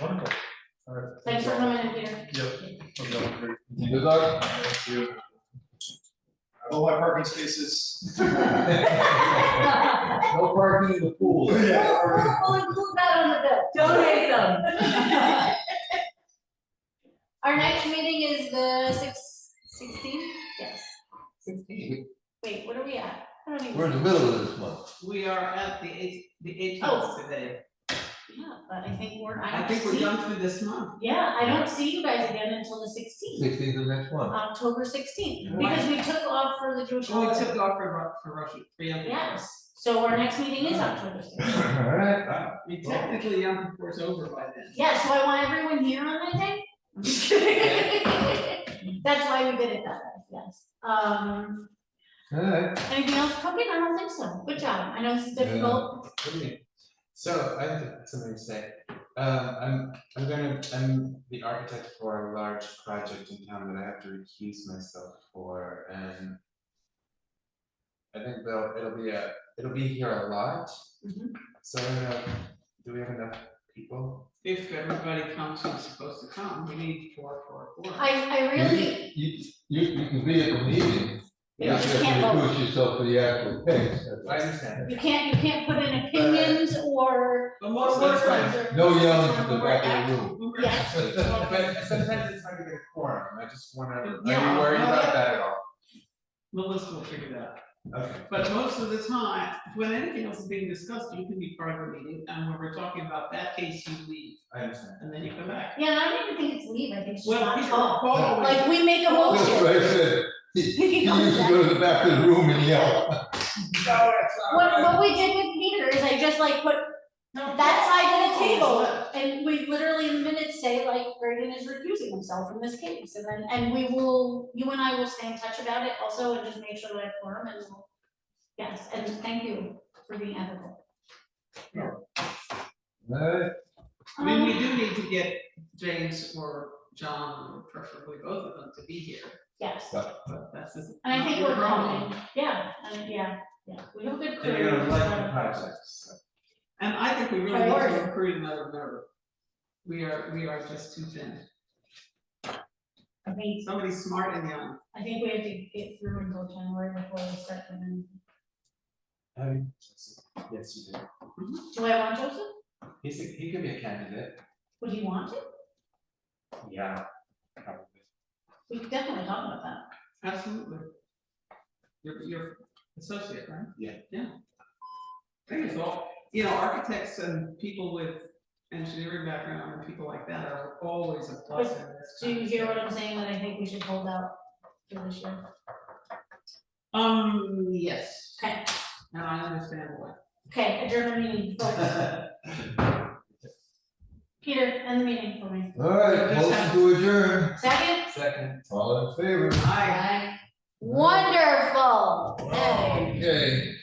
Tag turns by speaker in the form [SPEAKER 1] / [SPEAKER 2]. [SPEAKER 1] Wonderful. All right.
[SPEAKER 2] Thanks for coming in, Peter.
[SPEAKER 1] Yep. I'm done. Great.
[SPEAKER 3] Good luck.
[SPEAKER 1] Thank you.
[SPEAKER 4] All my parking spaces.
[SPEAKER 3] No parking in the pool.
[SPEAKER 4] Yeah.
[SPEAKER 5] Donate them.
[SPEAKER 2] Our next meeting is the six, sixteen? Yes. Wait, what are we at? I don't even.
[SPEAKER 3] We're in the middle of this month.
[SPEAKER 5] We are at the eight, the
[SPEAKER 2] Oh.
[SPEAKER 5] eighteenth today.
[SPEAKER 2] Yeah, but I think we're, I
[SPEAKER 5] I
[SPEAKER 2] don't
[SPEAKER 5] think we're
[SPEAKER 2] see-
[SPEAKER 5] done through this month.
[SPEAKER 2] Yeah, I don't see you guys again until the sixteenth,
[SPEAKER 3] Sixteenth of next month.
[SPEAKER 2] October sixteenth,
[SPEAKER 5] Right.
[SPEAKER 2] because we took off for the Jewish
[SPEAKER 5] Well, we
[SPEAKER 2] holiday.
[SPEAKER 5] took off for, Ru- for Russian, for Yom Kippur.
[SPEAKER 2] Yes, so our next meeting is October
[SPEAKER 3] All
[SPEAKER 2] sixteenth.
[SPEAKER 3] right.
[SPEAKER 5] I mean, technically, Yom Kippur's over by then.
[SPEAKER 2] Yeah, so I want everyone here on that day. I'm just kidding. That's why we did it that way, yes. Um,
[SPEAKER 3] All right.
[SPEAKER 2] anything else cooking? I don't think so. Good job. I know this is
[SPEAKER 6] Yeah.
[SPEAKER 2] difficult.
[SPEAKER 6] What do you mean? So I have something to say. Um, I'm, I'm gonna, I'm the architect for a large project in town that I have to recuse myself for and I think they'll, it'll be a, it'll be here a lot.
[SPEAKER 2] Mhm.
[SPEAKER 6] So I don't know, do we have enough people?
[SPEAKER 5] If everybody comes who's supposed to come, we need four, four, four.
[SPEAKER 2] I, I really,
[SPEAKER 3] You, you, you can be at the meeting.
[SPEAKER 2] You just
[SPEAKER 3] have to
[SPEAKER 2] can't vote.
[SPEAKER 3] Push yourself for the actual thing.
[SPEAKER 6] I understand.
[SPEAKER 2] You can't, you can't put in opinions or,
[SPEAKER 5] But
[SPEAKER 2] or
[SPEAKER 5] most of the
[SPEAKER 2] words
[SPEAKER 5] time,
[SPEAKER 2] or.
[SPEAKER 3] No yelling to the
[SPEAKER 2] or
[SPEAKER 3] back
[SPEAKER 2] act-
[SPEAKER 3] of the room.
[SPEAKER 5] we were-
[SPEAKER 2] Yes.
[SPEAKER 6] But sometimes it's hard to get a quorum. I just wanna, are
[SPEAKER 5] Yeah.
[SPEAKER 6] you worried about that at all?
[SPEAKER 5] Melissa will figure that out.
[SPEAKER 6] Okay.
[SPEAKER 5] But most of the time, when anything else is being discussed, you can be part of the meeting, and when we're talking about that case, you leave,
[SPEAKER 6] I understand.
[SPEAKER 5] and then you come back.
[SPEAKER 2] Yeah, I don't even think it's leave, I think it's just
[SPEAKER 5] Well,
[SPEAKER 2] not
[SPEAKER 5] people
[SPEAKER 2] talk.
[SPEAKER 5] call always-
[SPEAKER 2] Like, we make a
[SPEAKER 3] That's
[SPEAKER 2] motion.
[SPEAKER 3] what I said. He, he
[SPEAKER 2] He
[SPEAKER 3] used
[SPEAKER 2] comes
[SPEAKER 3] to
[SPEAKER 2] back.
[SPEAKER 3] go to the back of the room and yell.
[SPEAKER 5] uh,
[SPEAKER 2] What, what we did with Peter is I just like put that side of the table and we literally in minutes say like Braden is recusing himself from this case. And then, and we will, you and I will stay in touch about it also and just make sure that I form and we'll- yes, and thank you for being ethical.
[SPEAKER 3] All right.
[SPEAKER 5] I mean, we
[SPEAKER 2] Um,
[SPEAKER 5] do need to get James or John, or preferably both of them, to be here,
[SPEAKER 2] Yes,
[SPEAKER 5] but that's just.
[SPEAKER 2] and I think
[SPEAKER 5] not
[SPEAKER 2] we're
[SPEAKER 5] your problem.
[SPEAKER 2] coming, yeah, and yeah, yeah, we have a good crew.
[SPEAKER 6] And you're gonna like the
[SPEAKER 2] so-
[SPEAKER 6] project, so.
[SPEAKER 5] And I think we really need
[SPEAKER 2] Priority.
[SPEAKER 5] to recruit another member. We are, we are just too thin.
[SPEAKER 2] I think,
[SPEAKER 5] Somebody smart and young.
[SPEAKER 2] I think we have to get through until January before we start them.
[SPEAKER 6] Um, yes, you do.
[SPEAKER 5] Mm-hmm.
[SPEAKER 2] Do I want Joseph?
[SPEAKER 6] He's a, he could be a candidate.
[SPEAKER 2] Would you want to?
[SPEAKER 6] Yeah. Probably.
[SPEAKER 2] We could definitely talk about that.
[SPEAKER 5] Absolutely. Your, your associate, right?
[SPEAKER 6] Yeah.
[SPEAKER 5] Yeah. I think it's all, you know, architects and people with engineering background and people like that are always a plus in this.
[SPEAKER 2] Do
[SPEAKER 5] kind
[SPEAKER 2] you
[SPEAKER 5] of
[SPEAKER 2] hear
[SPEAKER 5] stuff.
[SPEAKER 2] what I'm saying, that I think we should hold out for this year?
[SPEAKER 5] Um, yes.
[SPEAKER 2] Okay.
[SPEAKER 5] And I understand why.
[SPEAKER 2] Okay, adjourn the meeting, folks. Peter, end the meeting for me.
[SPEAKER 3] All right,
[SPEAKER 5] Just
[SPEAKER 3] motion
[SPEAKER 5] have-
[SPEAKER 3] to adjourn.
[SPEAKER 2] Second?
[SPEAKER 6] Second.
[SPEAKER 3] All in favor?
[SPEAKER 5] Aye.
[SPEAKER 2] Wonderful. Hey.
[SPEAKER 3] Okay.